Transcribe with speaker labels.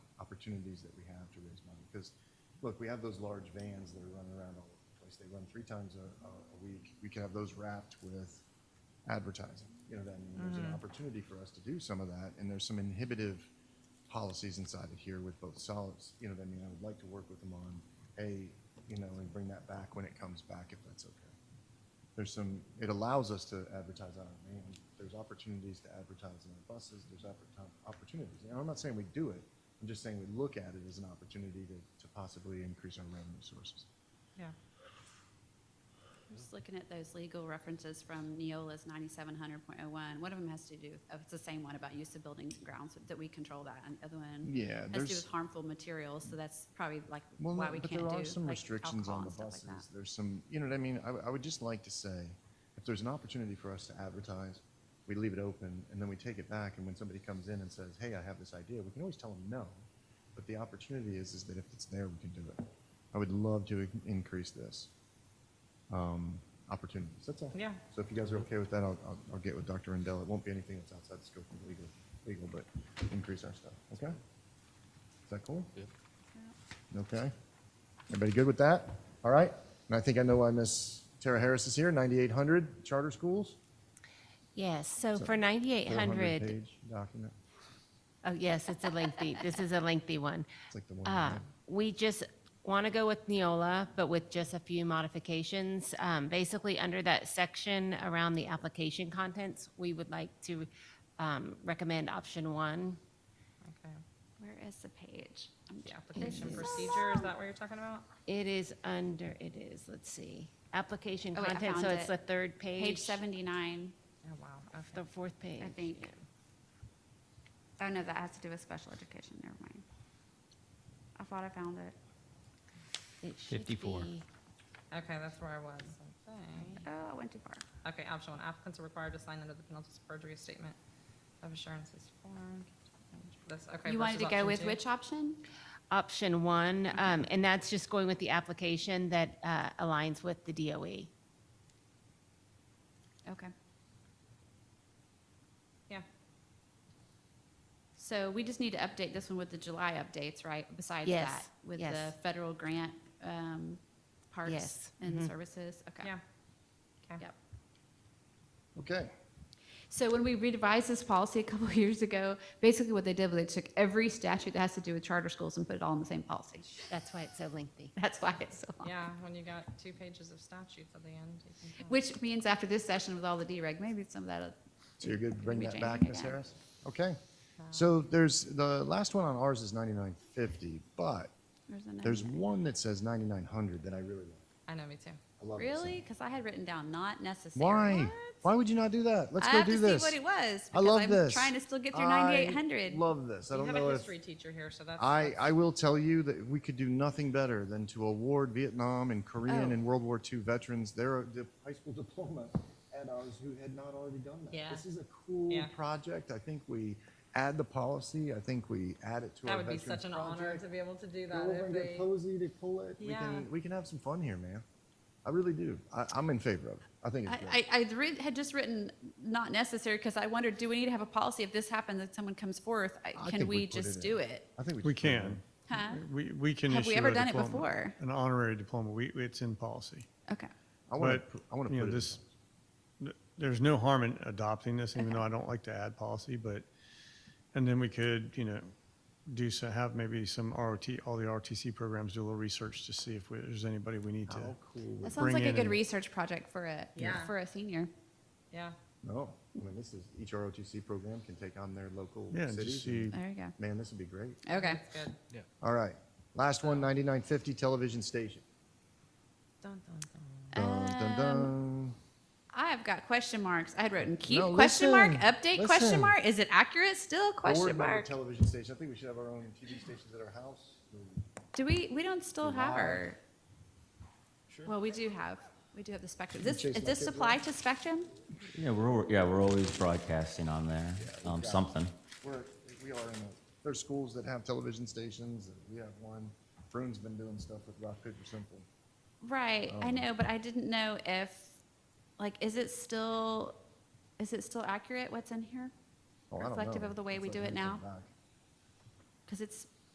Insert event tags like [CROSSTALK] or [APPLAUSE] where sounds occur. Speaker 1: opportunities that we have to raise money. Because, look, we have those large vans that are running around all over the place. They run three times a, a a week. We could have those wrapped with advertising. You know what I mean? There's an opportunity for us to do some of that, and there's some inhibitive policies inside of here with both solids. You know what I mean? I would like to work with them on, hey, you know, and bring that back when it comes back, if that's okay. There's some, it allows us to advertise on our van. There's opportunities to advertise on our buses. There's opportu- opportunities. And I'm not saying we do it. I'm just saying we look at it as an opportunity to, to possibly increase our revenue sources.
Speaker 2: Yeah.
Speaker 3: I'm Just looking at those legal references from Neola's 9700.01, one of them has to do, oh, it's the same one about use of buildings and grounds, that we control that, and the other one
Speaker 1: Yeah,
Speaker 3: has to do with harmful materials, so that's probably like
Speaker 1: Well,
Speaker 3: why
Speaker 1: no,
Speaker 3: we
Speaker 1: but
Speaker 3: can't do
Speaker 1: there
Speaker 3: like
Speaker 1: are some restrictions
Speaker 3: alcohol
Speaker 1: on the
Speaker 3: and stuff like
Speaker 1: buses.
Speaker 3: that.
Speaker 1: There's some, you know what I mean? I, w- I would just like to say, if there's an opportunity for us to advertise, we leave it open and then we take it back. And when somebody comes in and says, "Hey, I have this idea," we can always tell them no. But the opportunity is, is that if it's there, we can do it. I would love to in- increase this um, opportunities. That's all.
Speaker 2: Yeah.
Speaker 1: So if you guys are okay with that, I'll, I'll, I'll get with Dr. Rendell. It won't be anything that's outside the scope of legal, legal, but increase our stuff. Okay. Is that cool? Okay. Everybody good with that? All right. And I think I know why Miss Tara Harris is here, 9,800 charter schools.
Speaker 4: Yes, so
Speaker 1: So,
Speaker 4: for 9,800,
Speaker 1: 400-page document.
Speaker 4: oh, yes, it's a lengthy, this is a lengthy one.
Speaker 1: It's like the one.
Speaker 3: Ah.
Speaker 4: Uh,
Speaker 1: I
Speaker 4: We just want to go with Neola, but with just a few modifications. Um, Basically, under that section around the application contents, we would like to um, recommend option one.
Speaker 2: Okay.
Speaker 3: Where is the page? I'm
Speaker 2: The
Speaker 3: tr-
Speaker 2: application procedure, is that what you're talking about?
Speaker 4: It is under, it is, let's see, application
Speaker 3: Oh, wait, I
Speaker 4: content, so
Speaker 3: found
Speaker 4: it's
Speaker 3: it.
Speaker 4: the third page.
Speaker 3: Page 79,
Speaker 2: Oh, wow. Okay.
Speaker 4: The fourth page.
Speaker 3: I think. Oh, no, that has to do with special education, never mind. I thought I found it.
Speaker 4: It should
Speaker 5: 54.
Speaker 4: be-
Speaker 2: Okay, that's where I was, I think.
Speaker 3: Oh, I went too far.
Speaker 2: Okay, option one, applicants are required to sign under the penalty of perjury a statement of assurances form. That's, okay.
Speaker 3: You wanted to
Speaker 2: versus
Speaker 3: go
Speaker 2: option
Speaker 3: with
Speaker 2: two.
Speaker 3: which option?
Speaker 4: option one, um, and that's just going with the application that uh, aligns with the E. DOE.
Speaker 3: Okay.
Speaker 2: Yeah,
Speaker 3: So we just need to update this one with the July updates, right? Besides
Speaker 4: Yes,
Speaker 3: that, with the
Speaker 4: yes.
Speaker 3: federal grant, um, parks
Speaker 4: Yes, Mm-hmm.
Speaker 3: and services, okay.
Speaker 2: yeah. Okay.
Speaker 3: Yep.
Speaker 1: Okay.
Speaker 3: So when we revised this policy a couple [LAUGHS] of years ago, basically what they did was they took every statute that has to do with charter schools and put it all in the same policy. [LAUGHS]
Speaker 4: That's why it's so lengthy.
Speaker 3: That's why it's so long.
Speaker 2: Yeah, when you got two pages of statutes at the end. you can tell.
Speaker 3: Which means after this session with all the dereg, maybe some of that.
Speaker 1: So you're good to bring
Speaker 3: Maybe
Speaker 1: that
Speaker 3: Jane
Speaker 1: back,
Speaker 3: can
Speaker 1: Miss
Speaker 3: add.
Speaker 1: Harris? Okay. So there's, the last one on ours is 9,950, but
Speaker 3: another
Speaker 1: there's
Speaker 3: one.
Speaker 1: one that says 9,900 that I really like.
Speaker 2: I know, me too.
Speaker 1: I love this one.
Speaker 3: Really? Because I had written down not necessary.
Speaker 1: Why? Why would you not do that? Let's
Speaker 3: I
Speaker 1: go
Speaker 3: have to
Speaker 1: do
Speaker 3: see
Speaker 1: this.
Speaker 3: what it was.
Speaker 1: I
Speaker 3: because
Speaker 1: love
Speaker 3: I'm
Speaker 1: this.
Speaker 3: Trying to still get through
Speaker 1: I
Speaker 3: 9800.
Speaker 1: Love this. I
Speaker 2: You
Speaker 1: don't
Speaker 2: have
Speaker 1: know
Speaker 2: a
Speaker 1: if.
Speaker 2: history teacher here, so that's.
Speaker 1: I,
Speaker 2: that's-
Speaker 1: I will tell you that we could do nothing better than to award Vietnam and Korean
Speaker 3: Oh.
Speaker 1: and World War II veterans their uh, di- high school [LAUGHS] diploma and ours who had not already done that.
Speaker 2: Yeah.
Speaker 1: This is a cool
Speaker 2: Yeah.
Speaker 1: project. I think we add the policy. I think we add it to
Speaker 2: That
Speaker 1: our
Speaker 2: would be
Speaker 1: veterans
Speaker 2: such an honor
Speaker 1: project.
Speaker 2: to be able to do
Speaker 1: Go
Speaker 2: that.
Speaker 1: over
Speaker 2: if
Speaker 1: and get
Speaker 2: they-
Speaker 1: Posey to pull it. We
Speaker 2: Yeah.
Speaker 1: can, we can have some fun here, man. I really do. I, I'm in favor of it. I think it's great.
Speaker 3: I, I I'd writ- had just written not necessary because I wondered, do we need to have a policy if this happens, if someone comes forth, I-
Speaker 1: I
Speaker 3: can
Speaker 1: think we
Speaker 3: we
Speaker 1: put it
Speaker 3: just
Speaker 1: in.
Speaker 3: do it?
Speaker 1: I think we.
Speaker 5: We
Speaker 1: should put it in.
Speaker 5: can.
Speaker 3: Huh?
Speaker 5: We, we can
Speaker 3: Have we
Speaker 5: issue
Speaker 3: ever
Speaker 5: a
Speaker 3: done it
Speaker 5: diploma,
Speaker 3: before?
Speaker 5: An honorary diploma. We, it's in policy.
Speaker 3: Okay.
Speaker 1: I want
Speaker 5: But,
Speaker 1: to, I want to
Speaker 5: you know,
Speaker 1: put it.
Speaker 5: this- th- There's no harm in adopting this, even though I don't like to add policy, but, and then we could, you know, do so, have maybe some ROT, all the ROTC programs do a little research to see if we- there's anybody we need to.
Speaker 1: How Oh, cool.
Speaker 3: That sounds
Speaker 5: Bring
Speaker 3: like a
Speaker 5: in
Speaker 3: good
Speaker 5: and-
Speaker 3: research project for a,
Speaker 2: Yeah.
Speaker 3: for a senior.
Speaker 2: Yeah.
Speaker 1: No, I mean, this is, each ROTC program can take on their local
Speaker 5: Yeah, and
Speaker 1: cities.
Speaker 5: just see,
Speaker 1: and-
Speaker 3: There you
Speaker 1: Man, this would be great.
Speaker 3: go. Okay.
Speaker 2: That's good.
Speaker 1: All right, last one, 9950 television station.
Speaker 2: Dun, dun, dun.
Speaker 1: Dun,
Speaker 3: Um,
Speaker 1: dun, dun.
Speaker 3: I have got question marks. I had written keep
Speaker 1: No,
Speaker 3: question mark,
Speaker 1: listen,
Speaker 3: update question
Speaker 1: listen.
Speaker 3: mark. Is it accurate still?
Speaker 1: Board
Speaker 3: Question
Speaker 1: member
Speaker 3: mark.
Speaker 1: Television station, I think we should have our own TV stations at our house.
Speaker 3: Do we, we don't still have
Speaker 1: Live.
Speaker 3: our? Well, we do have, we do have the Spectrum. This,
Speaker 1: Chase
Speaker 3: is
Speaker 1: my kids
Speaker 3: this supply to Spectrum?
Speaker 6: Yeah, we're, al- yeah, we're always broadcasting on there, um, something.
Speaker 1: We're, we are in a, there's schools that have television stations, and we have one. Vroom's been doing stuff with Rock Paper Simple.
Speaker 3: Right, I know, but I didn't know if, like, is it still, is it still accurate what's in here?
Speaker 1: Oh, I don't
Speaker 3: Reflective
Speaker 1: know.
Speaker 3: of the way we
Speaker 1: That's
Speaker 3: do
Speaker 1: what
Speaker 3: it
Speaker 1: we come
Speaker 3: now?
Speaker 1: back.
Speaker 3: Because it's